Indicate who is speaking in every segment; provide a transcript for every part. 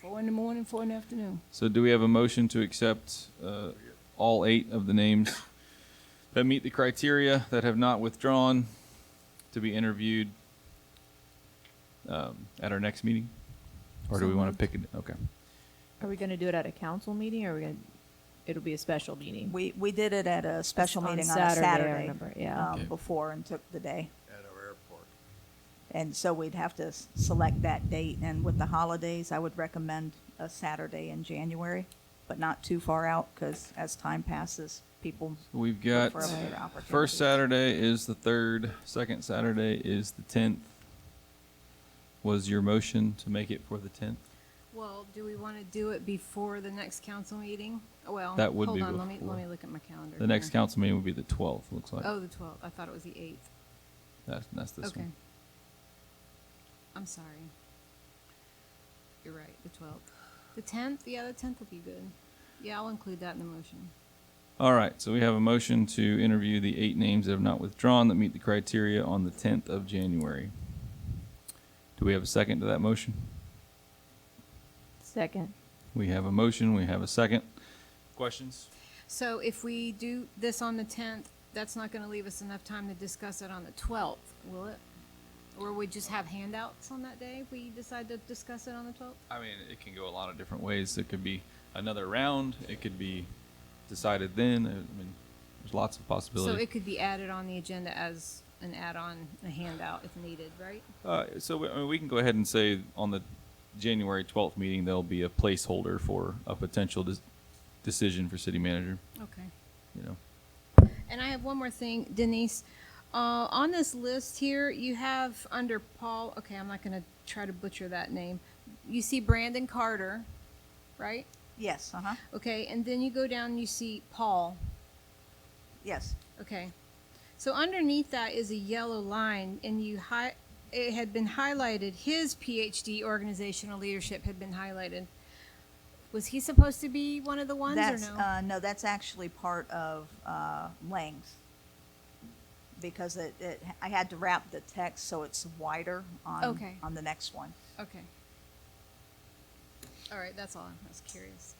Speaker 1: Four in the morning, four in the afternoon.
Speaker 2: So do we have a motion to accept uh, all eight of the names that meet the criteria, that have not withdrawn, to be interviewed um, at our next meeting? Or do we want to pick it? Okay.
Speaker 3: Are we gonna do it at a council meeting or are we gonna, it'll be a special meeting?
Speaker 4: We, we did it at a special
Speaker 3: on
Speaker 4: meeting on a
Speaker 3: Saturday, I
Speaker 4: Saturday.
Speaker 3: remember, yeah.
Speaker 4: um,
Speaker 2: Yeah.
Speaker 4: Before and took the day.
Speaker 5: at our airport.
Speaker 4: And so we'd have to s- select that date. And with the holidays, I would recommend a Saturday in January, but not too far out because as time passes, people,
Speaker 2: We've got,
Speaker 4: for other
Speaker 2: first
Speaker 4: opportunities.
Speaker 2: Saturday is the third, second Saturday is the tenth. Was your motion to make it for the tenth?
Speaker 6: Well, do we want to do it before the next council meeting? Well,
Speaker 2: That would be
Speaker 6: Hold on, let me,
Speaker 2: before.
Speaker 6: let me look at my calendar.
Speaker 2: The next
Speaker 6: here.
Speaker 2: council meeting would be the twelfth, looks like.
Speaker 6: Oh, the twelfth, I thought it was the eighth.
Speaker 2: That's, that's this
Speaker 6: Okay.
Speaker 2: one.
Speaker 6: I'm sorry. You're right, the twelfth. The tenth, yeah, the tenth would be good. Yeah, I'll include that in the motion.
Speaker 2: All right, so we have a motion to interview the eight names that have not withdrawn that meet the criteria on the tenth of January. Do we have a second to that motion?
Speaker 3: Second.
Speaker 2: We have a motion, we have a second. Questions?
Speaker 6: So if we do this on the tenth, that's not going to leave us enough time to discuss it on the twelfth, will it? Or we just have handouts on that day if we decide to discuss it on the twelfth?
Speaker 2: I mean, it can go a lot of different ways. It could be another round. It could be decided then. I mean, there's lots of
Speaker 6: So
Speaker 2: possibilities.
Speaker 6: it could be added on the agenda as an add-on, a handout if needed, right?
Speaker 2: Uh, so we, I mean, we can go ahead and say on the January 12th meeting, there'll be a placeholder for a potential des- decision for city manager,
Speaker 6: Okay.
Speaker 2: you know.
Speaker 6: And I have one more thing, Denise. Uh, on this list here, you have under Paul, okay, I'm not gonna try to butcher that name. You see Brandon Carter, right?
Speaker 4: yes, uh-huh,
Speaker 6: Okay, and then you go down and you see Paul.
Speaker 4: yes.
Speaker 6: Okay. So underneath that is a yellow line, and you hi- it had been highlighted. His PhD organizational leadership had been highlighted. Was he supposed to be one of the ones
Speaker 4: That's,
Speaker 6: or no?
Speaker 4: uh, no, that's actually part of, uh, Lang's. Because it, it, I had to wrap the text so it's wider on,
Speaker 6: Okay.
Speaker 4: on the next one.
Speaker 6: okay. All right, that's all. I was curious.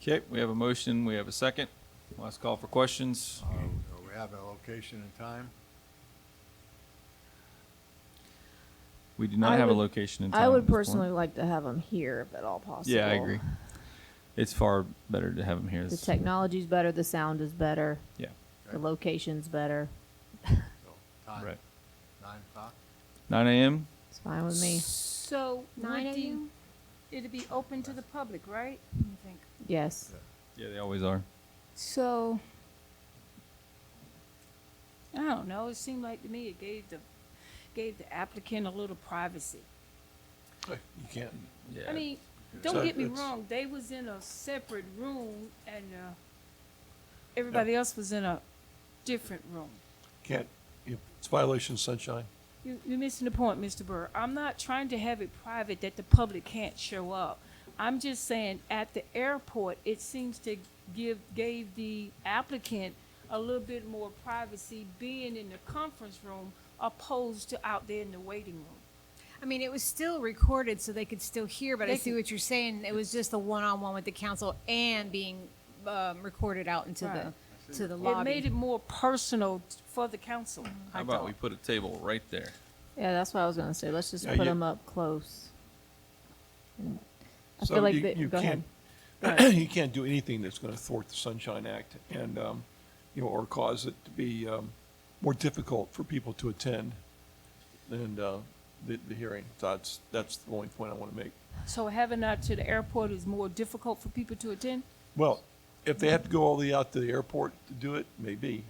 Speaker 2: Okay, we have a motion. We have a second. Last call for questions.
Speaker 5: Uh, We have a location and time.
Speaker 2: We do not
Speaker 3: I
Speaker 2: have a
Speaker 3: would-
Speaker 2: location in time.
Speaker 3: I
Speaker 2: at
Speaker 3: would
Speaker 2: this point.
Speaker 3: personally like to have them here if at all possible.
Speaker 2: Yeah, I agree. It's far better to have him here.
Speaker 3: The
Speaker 2: This-
Speaker 3: technology's better, the sound is better,
Speaker 2: Yeah,
Speaker 3: the location's better.
Speaker 5: So, time,
Speaker 2: right.
Speaker 5: Nine o'clock?
Speaker 2: 9 a.m.
Speaker 3: It's fine with me.
Speaker 7: So,
Speaker 6: Nine
Speaker 7: would you-
Speaker 6: a.m.
Speaker 7: it'd be open to the public, right?
Speaker 6: Let me think.
Speaker 3: Yes.
Speaker 2: Yeah, they always are.
Speaker 7: So,
Speaker 1: I don't know, it seemed like to me it gave the, gave the applicant a little privacy.
Speaker 8: You can't,
Speaker 2: Yeah.
Speaker 1: I mean,
Speaker 8: So
Speaker 1: don't get me
Speaker 8: it's-
Speaker 1: wrong, they was in a separate room and, uh, everybody else was in a different room.
Speaker 8: can't, if it's violation of sunshine.
Speaker 1: You, you're missing the point, Mr. Burr. I'm not trying to have it private that the public can't show up. I'm just saying at the airport, it seems to give gave the applicant a little bit more privacy being in the conference room opposed to out there in the waiting room.
Speaker 6: I mean, it was still recorded, so they could still hear. But I
Speaker 1: They
Speaker 6: see
Speaker 1: could-
Speaker 6: what you're saying. It was just the one-on-one with the council and being um, recorded out into
Speaker 1: Right.
Speaker 6: the to the
Speaker 1: It
Speaker 6: lobby. Mm-hmm.
Speaker 1: made it more personal for the council.
Speaker 2: How about we put a table right there?
Speaker 3: Yeah, that's what I was gonna say. Let's just
Speaker 8: Yeah,
Speaker 3: put
Speaker 8: you-
Speaker 3: them up close. And I
Speaker 8: So
Speaker 3: feel like
Speaker 8: you-
Speaker 3: they,
Speaker 8: you
Speaker 3: go ahead.
Speaker 8: can't- You can't do anything that's gonna thwart the Sunshine Act and, um, you know, or cause it to be, um, more difficult for people to attend and, uh, the, the hearing. So That's, that's the only point I wanna make.
Speaker 1: So having that to the airport is more difficult for people to attend?
Speaker 8: Well, if they have to go all the way out to the airport to do it, maybe.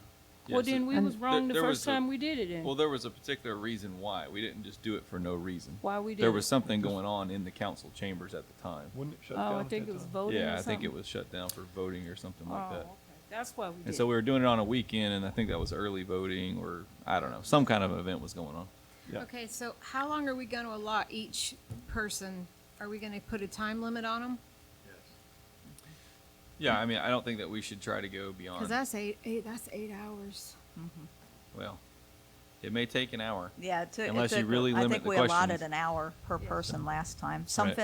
Speaker 1: Well,
Speaker 2: Yes, it-
Speaker 1: then we
Speaker 3: And-
Speaker 1: was wrong the
Speaker 2: There- there was
Speaker 1: first
Speaker 2: a-
Speaker 1: time we did it then.
Speaker 2: Well, there was a particular reason why. We didn't just do it for no reason.
Speaker 1: Why we did
Speaker 2: There
Speaker 1: it.
Speaker 2: was something going on in the council chambers at the time.
Speaker 8: Wouldn't it shut down
Speaker 1: Oh, I
Speaker 8: at
Speaker 1: think
Speaker 8: that
Speaker 1: it was
Speaker 8: time?
Speaker 1: voting or
Speaker 2: Yeah, I think
Speaker 1: something.
Speaker 2: it was shut down for voting or something
Speaker 1: Oh,
Speaker 2: like that.
Speaker 1: okay. That's why we did it.
Speaker 2: And so we were doing it on a weekend, and I think that was early voting, or I don't know, some kind of event was going on.
Speaker 8: Yeah.
Speaker 6: Okay, so how long are we going to allot each person? Are we going to put a time limit on them?
Speaker 5: Yes.
Speaker 2: Yeah, I mean, I don't think that we should try to go beyond.
Speaker 6: Because that's eight, eight. That's eight hours.
Speaker 2: well, it may take an hour.
Speaker 4: Yeah, it took. it
Speaker 2: Unless you
Speaker 4: took-
Speaker 2: really limit the
Speaker 4: I think we allotted
Speaker 2: questions.
Speaker 4: an hour per person last time.
Speaker 2: Right.
Speaker 4: Some